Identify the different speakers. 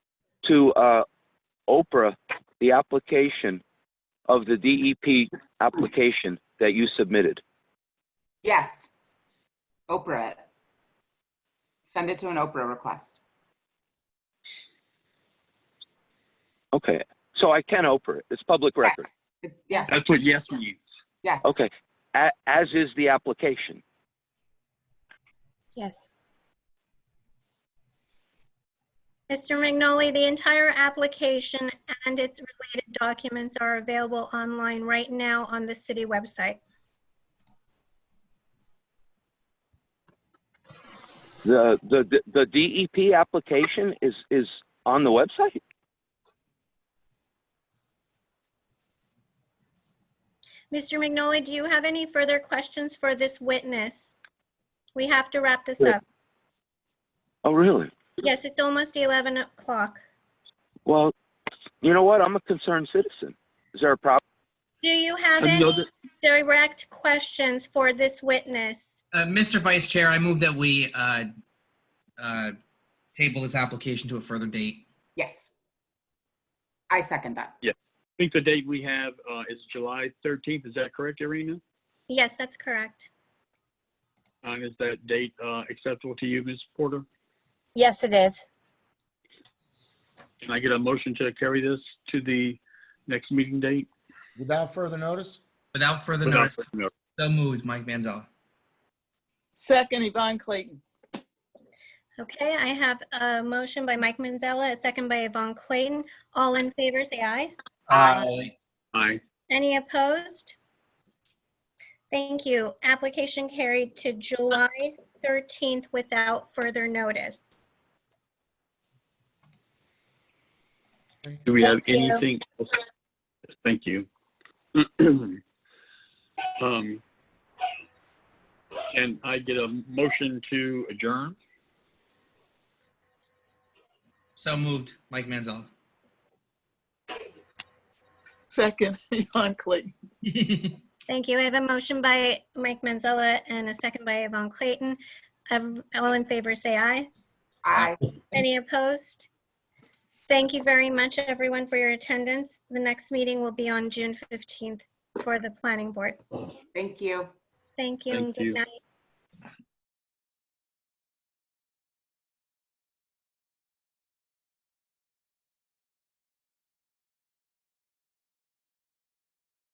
Speaker 1: to uh, Oprah the application of the DEP application that you submitted?
Speaker 2: Yes. Oprah it. Send it to an Oprah request.
Speaker 1: Okay, so I can Oprah it. It's public record.
Speaker 2: It- Yes,
Speaker 3: That's what yes means.
Speaker 2: yes.
Speaker 1: Okay, A- as is the application.
Speaker 4: Yes.
Speaker 5: Mr. Magnoli, the entire application and its related documents are available online right now on the city website.
Speaker 1: The, the, the DEP application is, is on the website?
Speaker 5: Mr. Magnoli, do you have any further questions for this witness? We have to wrap this up.
Speaker 1: Oh, really?
Speaker 5: Yes, it's almost 11 o'clock.
Speaker 1: Well, you know what? I'm a concerned citizen. Is there a problem?
Speaker 5: Do you have any
Speaker 3: Another-
Speaker 5: direct questions for this witness?
Speaker 6: Uh, Mr. Vice Chair, I move that we uh, uh, table this application to a further date.
Speaker 2: Yes. I second that.
Speaker 3: I think the date we have uh, is July 13th. Is that correct, Irina?
Speaker 5: Yes, that's correct.
Speaker 3: Uh, Is that date uh, acceptable to you, Ms. Porter?
Speaker 4: Yes, it is.
Speaker 3: Can I get a motion to carry this to the next meeting date?
Speaker 7: Without further notice?
Speaker 6: Without further
Speaker 3: Without
Speaker 6: notice,
Speaker 3: further notice.
Speaker 6: so moved, Mike Manzella.
Speaker 8: Second, Yvonne Clayton.
Speaker 5: Okay, I have a motion by Mike Manzella, a second by Yvonne Clayton. All in favor, say aye.
Speaker 6: Aye.
Speaker 3: Aye.
Speaker 5: Any opposed? Thank you. Application carried to July 13th without further notice.
Speaker 3: Do we have
Speaker 4: Thank you.
Speaker 3: anything? else? Thank you. Um, Can I get a motion to adjourn?
Speaker 6: So moved, Mike Manzella.
Speaker 8: Second, Yvonne Clayton.
Speaker 5: Thank you. I have a motion by Mike Manzella and a second by Yvonne Clayton. Um, All in favor, say aye.
Speaker 2: I,
Speaker 5: Any opposed? Thank you very much, everyone, for your attendance. The next meeting will be on June 15th for the planning board.
Speaker 2: thank you.
Speaker 5: Thank you
Speaker 3: Thank
Speaker 5: and good
Speaker 3: you.
Speaker 5: night.